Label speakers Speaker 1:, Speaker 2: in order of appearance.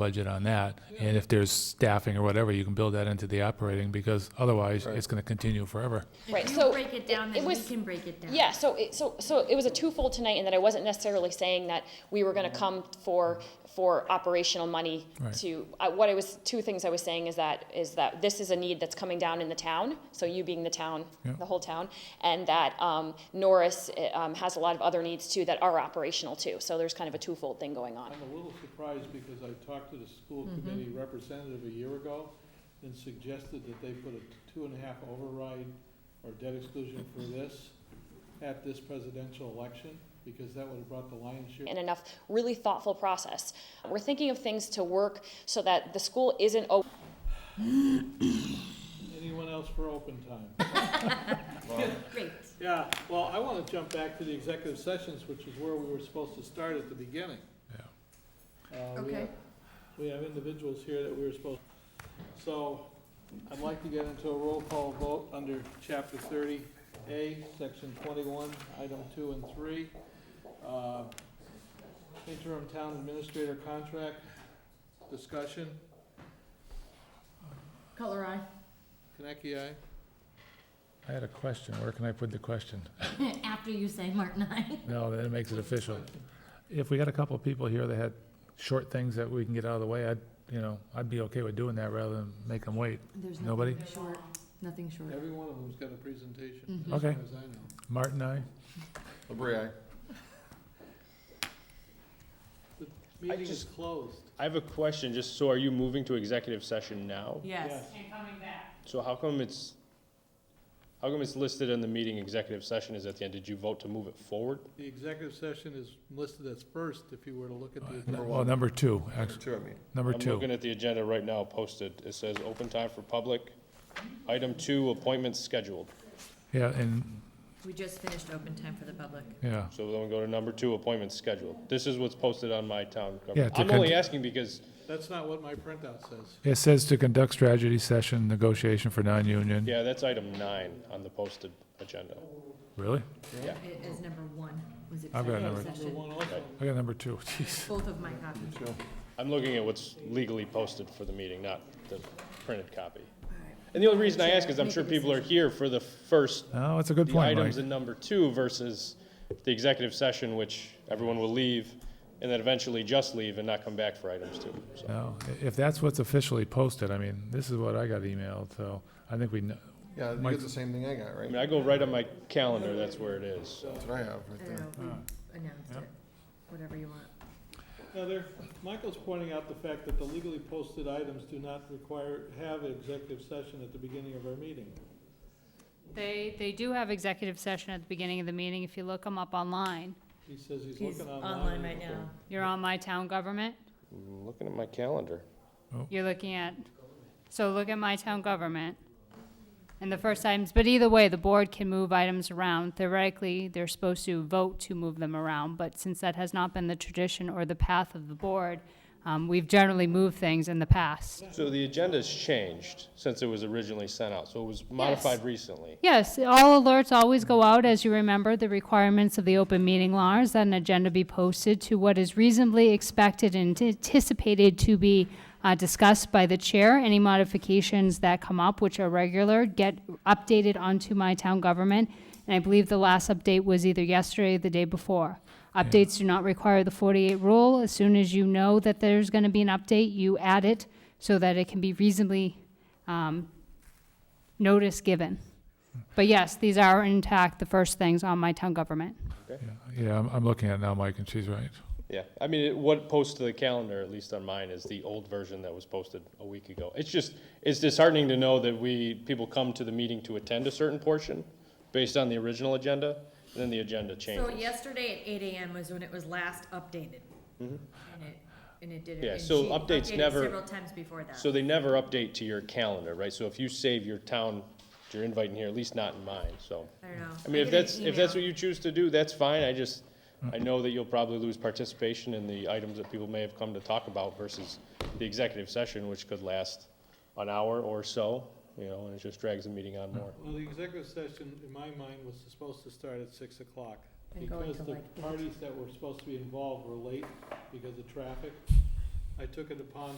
Speaker 1: budget on that. And if there's staffing or whatever, you can build that into the operating, because otherwise, it's gonna continue forever.
Speaker 2: Right,
Speaker 3: you
Speaker 2: so.
Speaker 3: break it down, then
Speaker 2: was-
Speaker 3: we can break it down.
Speaker 2: Yeah, so it, so, so it was a twofold tonight in that I wasn't necessarily saying that we were gonna come for, for operational money
Speaker 1: Right.
Speaker 2: to, uh, what I was, two things I was saying is that, is that this is a need that's coming down in the town, so you being the town,
Speaker 1: Yeah.
Speaker 2: the whole town, and that, um, Norris, eh, um, has a lot of other needs too that are operational too, so there's kind of a twofold thing going on.
Speaker 4: I'm a little surprised because I talked to the school committee representative a year ago and suggested that they put a two and a half override or debt exclusion for this at this presidential election, because that would have brought the lion's share.
Speaker 2: and enough really thoughtful process. We're thinking of things to work so that the school isn't o-
Speaker 4: Anyone else for open time?
Speaker 3: Great.
Speaker 4: Yeah, well, I want to jump back to the executive sessions, which is where we were supposed to start at the beginning.
Speaker 1: Yeah.
Speaker 4: Uh, we have-
Speaker 3: Okay.
Speaker 4: We have individuals here that we were supposed, so I'd like to get into a roll call vote under chapter thirty A, section twenty-one, item two and three. Uh, Interim town administrator contract discussion,
Speaker 3: Color eye.
Speaker 4: Kaneki, aye?
Speaker 1: I had a question, where can I put the question?
Speaker 3: After you say Martin I.
Speaker 1: No, then it makes it official. If we got a couple of people here that had short things that we can get out of the way, I'd, you know, I'd be okay with doing that rather than make them wait.
Speaker 5: There's
Speaker 1: Nobody?
Speaker 5: nothing short, nothing short.
Speaker 4: Every one of them's got a presentation, as far
Speaker 1: Okay.
Speaker 4: as I know.
Speaker 1: Martin, I,
Speaker 6: Labrie,
Speaker 4: Meeting is
Speaker 7: just-
Speaker 4: closed.
Speaker 7: I have a question, just so are you moving to executive session now?
Speaker 5: Yes.
Speaker 7: So how come it's, how come it's listed in the meeting executive session is at the end? Did you vote to move it forward?
Speaker 4: The executive session is listed as first, if you were to look at the agenda.
Speaker 6: number
Speaker 1: well,
Speaker 6: one,
Speaker 1: number two,
Speaker 6: number
Speaker 1: actually,
Speaker 6: two, I mean.
Speaker 1: number
Speaker 7: I'm looking
Speaker 1: two.
Speaker 7: at the agenda right now posted. It says open time for public. Item two, appointments scheduled.
Speaker 1: Yeah, and,
Speaker 5: We just finished open time for the public.
Speaker 1: yeah,
Speaker 7: So then we go to number two, appointments scheduled. This is what's posted on my town
Speaker 1: Yeah,
Speaker 7: government.
Speaker 1: to
Speaker 7: I'm only
Speaker 1: con-
Speaker 7: asking because
Speaker 4: That's not what my printout says.
Speaker 1: it says to conduct strategy session, negotiation for non-union.
Speaker 7: Yeah, that's item nine on the posted agenda.
Speaker 1: Really?
Speaker 5: It is number one, was
Speaker 1: I've got number-
Speaker 5: executive
Speaker 4: Number
Speaker 5: session.
Speaker 4: one also.
Speaker 1: I got number two, jeez.
Speaker 5: Both of my copies.
Speaker 7: I'm looking at what's legally posted for the meeting, not the printed copy. And the only reason I ask is I'm sure people are here for the first,
Speaker 1: Oh, that's a good
Speaker 7: the
Speaker 1: point, Mike.
Speaker 7: items in number two versus the executive session, which everyone will leave, and then eventually just leave and not come back for items two. So
Speaker 1: No, i- if that's what's officially posted, I mean, this is what I got emailed, so I think we, kn-
Speaker 6: Yeah, you
Speaker 1: Mike-
Speaker 6: get the same thing I got,
Speaker 7: I
Speaker 6: right?
Speaker 7: mean, I go right on my calendar, that's where it is, so.
Speaker 6: That's what I have
Speaker 5: I
Speaker 6: right
Speaker 5: don't
Speaker 6: there.
Speaker 5: know, if we announced it, whatever you want.
Speaker 4: Now, there, Michael's pointing out the fact that the legally posted items do not require, have executive session at the beginning of our meeting.
Speaker 8: They, they do have executive session at the beginning of the meeting, if you look them up online.
Speaker 4: He says he's
Speaker 5: He's
Speaker 4: looking
Speaker 5: online right now.
Speaker 8: You're on My Town Government,
Speaker 7: I'm looking at my calendar.
Speaker 8: you're looking at, so look at My Town Government, and the first items, but either way, the board can move items around. Theoretically, they're supposed to vote to move them around, but since that has not been the tradition or the path of the board, um, we've generally moved things in the past.
Speaker 7: So the agenda's changed since it was originally sent out, so it was modified recently.
Speaker 8: Yes, all alerts always go out, as you remember, the requirements of the open meeting laws, that an agenda be posted to what is reasonably expected and anticipated to be uh, discussed by the chair. Any modifications that come up, which are regular, get updated onto my town government. And I believe the last update was either yesterday or the day before. Updates do not require the 48 rule. As soon as you know that there's going to be an update, you add it so that it can be reasonably um, notice given. But yes, these are intact, the first things on my town government.
Speaker 1: yeah, I'm, I'm looking at it now, Mike, and she's right.
Speaker 7: Yeah, I mean, it- what posts to the calendar, at least on mine, is the old version that was posted a week ago. It's just, it's disheartening to know that we, people come to the meeting to attend a certain portion based on the original agenda, and then the agenda
Speaker 5: So
Speaker 7: changes.
Speaker 5: yesterday at eight AM was when it was last updated.
Speaker 1: Mm-hmm.
Speaker 5: And it, and it did it.
Speaker 7: Yeah,
Speaker 5: and
Speaker 7: so
Speaker 5: she
Speaker 7: updates
Speaker 5: updated
Speaker 7: never-
Speaker 5: Several times before that.
Speaker 7: So they never update to your calendar, right? So if you save your town, your invite in here, at least not in mine, so.
Speaker 5: I don't know.
Speaker 7: I mean,
Speaker 5: get
Speaker 7: if
Speaker 5: an
Speaker 7: that's, if that's what
Speaker 5: email.
Speaker 7: you choose to do, that's fine, I just, I know that you'll probably lose participation in the items that people may have come to talk about versus the executive session, which could last an hour or so, you know, and it just drags the meeting on more.
Speaker 4: Well, the executive session, in my mind, was supposed to start at six o'clock.
Speaker 5: And going
Speaker 4: Because
Speaker 5: till
Speaker 4: the
Speaker 5: like eight.
Speaker 4: parties that were supposed to be involved were late because of traffic. I took it upon